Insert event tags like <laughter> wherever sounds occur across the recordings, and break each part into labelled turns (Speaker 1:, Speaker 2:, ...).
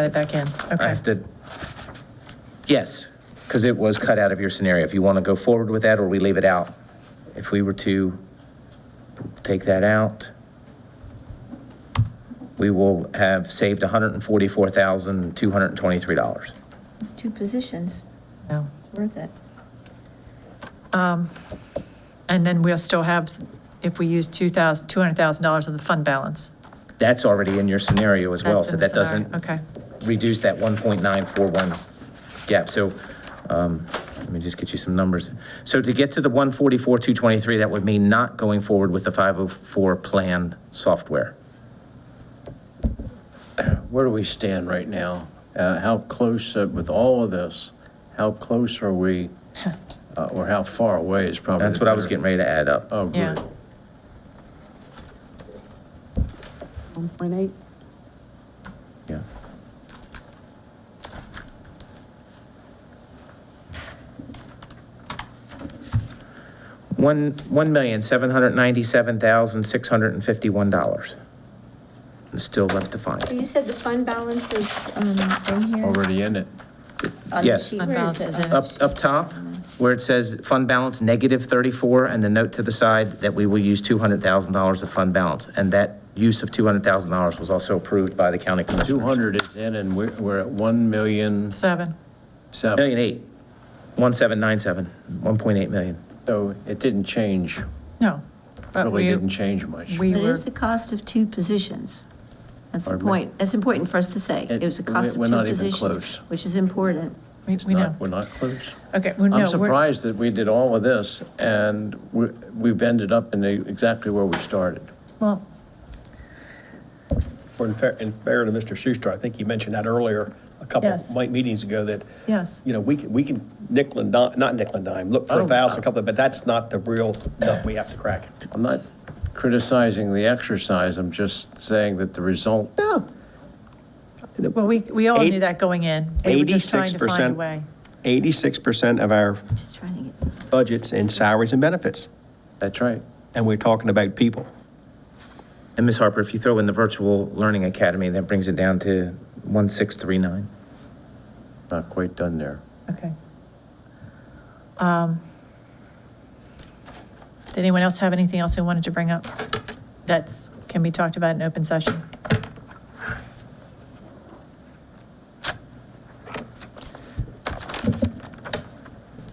Speaker 1: Add it back in,
Speaker 2: I
Speaker 1: okay.
Speaker 2: have to, yes, because it was cut out of your scenario. If you want to go forward with that, or we leave it out. If we were to take that out, we will have saved $144,223.
Speaker 3: It's two positions,
Speaker 1: Yeah.
Speaker 3: worth it.
Speaker 1: And then we'll still have, if we use 2,000, $200,000 of the fund balance.
Speaker 2: That's already in your scenario as well,
Speaker 1: That's
Speaker 2: so
Speaker 1: in the
Speaker 2: that
Speaker 1: scenario.
Speaker 2: doesn't
Speaker 1: Okay,
Speaker 2: reduce that 1.941 gap. So um, let me just get you some numbers. So to get to the 144,223, that would mean not going forward with the 504 plan software.
Speaker 4: Where do we stand right now? Uh, How close, uh, with all of this, how close
Speaker 1: <laughs>
Speaker 4: are we, uh, or how far away is probably?
Speaker 2: That's
Speaker 4: the
Speaker 2: what I was
Speaker 4: better-
Speaker 2: getting ready to add up.
Speaker 4: Oh,
Speaker 1: Yeah.
Speaker 4: good.
Speaker 5: 1.8.
Speaker 2: Yeah. One, $1,797,651. And Still left to
Speaker 3: So
Speaker 2: find.
Speaker 3: you said the fund balance is um, in here?
Speaker 4: Already in it.
Speaker 5: Uh,
Speaker 3: on the
Speaker 2: Yes.
Speaker 3: sheet?
Speaker 1: Fund
Speaker 3: Where
Speaker 1: balance is
Speaker 3: on
Speaker 1: in.
Speaker 3: the
Speaker 2: Up, up top, where it says fund balance negative 34, and the note to the side that we will use $200,000 of fund balance. And that use of $200,000 was also approved by the county commissioners.
Speaker 4: 200 is in, and we're we're at 1 million,
Speaker 1: seven.
Speaker 4: seven.
Speaker 2: Million eight, 1797, 1.8 million.
Speaker 4: So it didn't change,
Speaker 1: No. but
Speaker 4: really
Speaker 1: we-
Speaker 4: didn't change much.
Speaker 1: We
Speaker 5: It
Speaker 1: were,
Speaker 5: is the cost of two positions. That's the
Speaker 4: Pardon me?
Speaker 5: point. That's important for us to say.
Speaker 4: It-
Speaker 5: It was a
Speaker 4: we-
Speaker 5: cost of
Speaker 4: we're
Speaker 5: two
Speaker 4: not even
Speaker 5: positions,
Speaker 4: close.
Speaker 5: which is important.
Speaker 1: we
Speaker 4: It's
Speaker 1: we
Speaker 4: not-
Speaker 1: know.
Speaker 4: We're not close.
Speaker 1: Okay, well, no.
Speaker 4: I'm
Speaker 1: we're-
Speaker 4: surprised that we did all of this, and we- we've ended up in the- exactly where we started.
Speaker 1: Well,
Speaker 6: Well, In fair, in fair to Mr. Schuster, I think you mentioned that earlier, a couple,
Speaker 1: Yes.
Speaker 6: might night meetings ago, that,
Speaker 1: yes.
Speaker 6: you know, we can, we can nickel and dime, not nickel and dime, look
Speaker 4: I
Speaker 6: for a
Speaker 4: don't-
Speaker 6: thousand, a couple, but that's not the real nut we have to crack.
Speaker 4: I'm not criticizing the exercise, I'm just saying that the result
Speaker 6: No.
Speaker 1: Well, we, we all
Speaker 6: Eight-
Speaker 1: knew that going in. We were just trying to find a
Speaker 6: 86%.
Speaker 1: way.
Speaker 6: Eighty-six percent of our
Speaker 5: Just trying to get.
Speaker 6: budget's in salaries and benefits,
Speaker 4: That's right.
Speaker 6: and we're talking about people.
Speaker 2: And Ms. Harper, if you throw in the Virtual Learning Academy, that brings it down to 1639.
Speaker 4: Not quite done there.
Speaker 1: Okay. Um, Did anyone else have anything else they wanted to bring up that can be talked about in open session?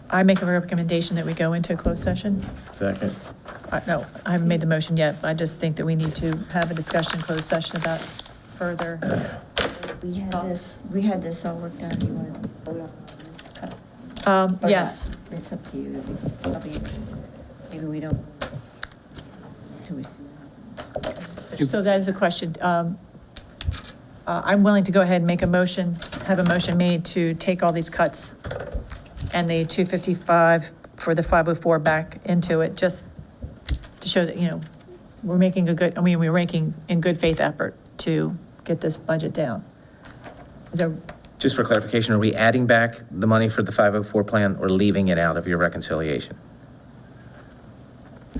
Speaker 1: I make a recommendation that we go into a closed session.
Speaker 4: Second.
Speaker 1: Uh, No, I haven't made the motion yet, but I just think that we need to have a discussion, closed session about further.
Speaker 3: We had this, we had this all worked out, you wanted to vote on this?
Speaker 1: Um,
Speaker 3: Or not?
Speaker 1: Yes,
Speaker 3: It's up to you, Probably- maybe we don't. do we see what happens?
Speaker 1: so that is a question. Um, uh, I'm willing to go ahead and make a motion, have a motion made to take all these cuts and the 255 for the 504 back into it, just to show that, you know, we're making a good, I mean, we're making in good faith effort to get this budget down. Is there-
Speaker 2: Just for clarification, are we adding back the money for the 504 plan or leaving it out of your reconciliation?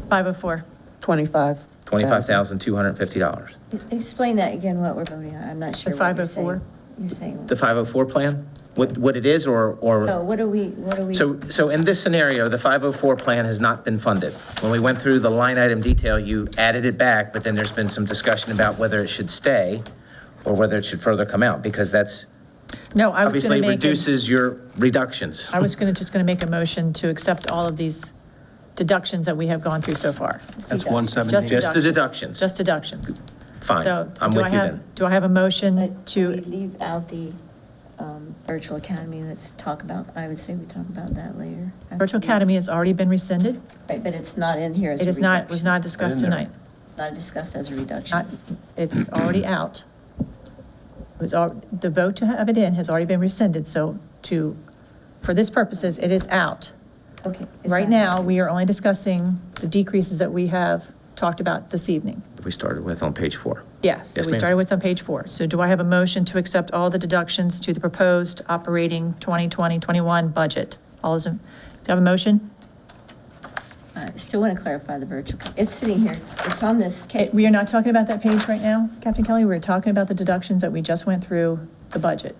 Speaker 1: 504,
Speaker 7: 25.
Speaker 2: $25,250.
Speaker 3: Explain that again, what we're voting on, I'm not sure
Speaker 1: The
Speaker 3: what you're saying.
Speaker 1: 504?
Speaker 3: You're saying.
Speaker 2: The 504 plan? What, what it is or,
Speaker 3: So
Speaker 2: or?
Speaker 3: what are we, what are we?
Speaker 2: So, so in this scenario, the 504 plan has not been funded. When we went through the line item detail, you added it back, but then there's been some discussion about whether it should stay or whether it should further come out because that's
Speaker 1: no, I was going
Speaker 2: obviously
Speaker 1: to make. a-
Speaker 2: reduces your reductions.
Speaker 1: I was going to, just going to make a motion to accept all of these deductions that we have gone through so far.
Speaker 6: That's one
Speaker 1: Just
Speaker 2: Just
Speaker 6: seventeen.
Speaker 2: the
Speaker 1: deductions.
Speaker 2: deductions.
Speaker 1: Just deductions.
Speaker 2: Fine,
Speaker 1: So
Speaker 2: I'm
Speaker 1: do I
Speaker 2: with you
Speaker 1: have-
Speaker 2: then.
Speaker 1: Do I have a motion
Speaker 3: But we
Speaker 1: to,
Speaker 3: leave out the um, virtual academy, let's talk about, I would say we talk about that later.
Speaker 1: Virtual Academy has already been rescinded?
Speaker 3: Right, but it's not in here as a
Speaker 1: It is
Speaker 3: reduction.
Speaker 1: not, was not discussed
Speaker 4: Not in there.
Speaker 1: tonight.
Speaker 3: Not discussed as a
Speaker 1: Not,
Speaker 3: reduction.
Speaker 1: it's
Speaker 3: <clears throat>
Speaker 1: already out. It was, al- the vote to have it in has already been rescinded, so to, for this purposes, it is out.
Speaker 3: Okay. it's
Speaker 1: Right
Speaker 3: not-
Speaker 1: now, we are only discussing the decreases that we have talked about this evening.
Speaker 2: We started with on page four.
Speaker 1: Yes, so
Speaker 2: Yes,
Speaker 1: we
Speaker 2: ma'am.
Speaker 1: started with on page four. So do I have a motion to accept all the deductions to the proposed operating 2020-21 budget? All those, in- do I have a motion?
Speaker 3: I still want to clarify the virtual, it's sitting here, it's on this. ca-
Speaker 1: Eh, Okay, We are not talking about that page right now, Captain Kelly. We're talking about the deductions that we just went through the budget.